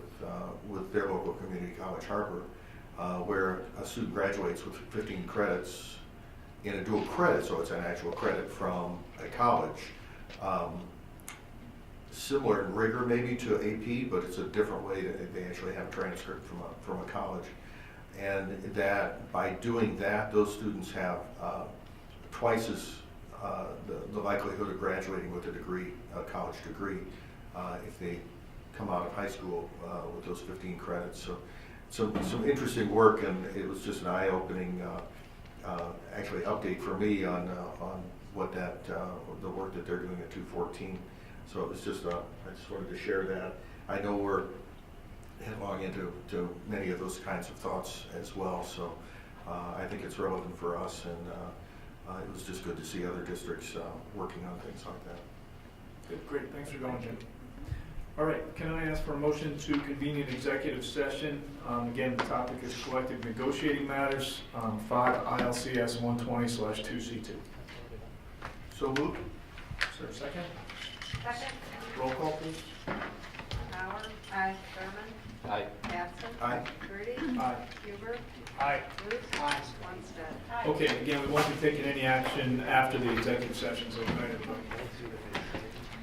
with their local community college, Harper, uh, where a student graduates with 15 credits in a dual credit, so it's an actual credit from a college. Um, similar in rigor maybe to AP, but it's a different way to, they actually have a transcript from a, from a college. And that by doing that, those students have uh, twice as uh, the, the likelihood of graduating with a degree, a college degree, uh, if they come out of high school uh, with those 15 credits. So, some, some interesting work, and it was just an eye-opening, uh, uh, actually, update for me on, uh, on what that, uh, the work that they're doing at 214. So it was just, uh, I just wanted to share that. I know we're headlong into to many of those kinds of thoughts as well, so uh, I think it's relevant for us, and uh, uh, it was just good to see other districts uh, working on things like that. Good, great, thanks for going, Jim. All right, can I ask for a motion to convene an executive session? Um, Again, the topic is collective negotiating matters, um, five ILCS one twenty slash two C two. So moved? Is there a second? Second, Roll call, please. Bauer. Aye. Thurman. Aye. Batson. Aye. Grudy. Aye. Huber. Aye. Ruth. Aye. Lundstedt. Okay, again, we won't be taking any action after the executive session, so good night, everybody.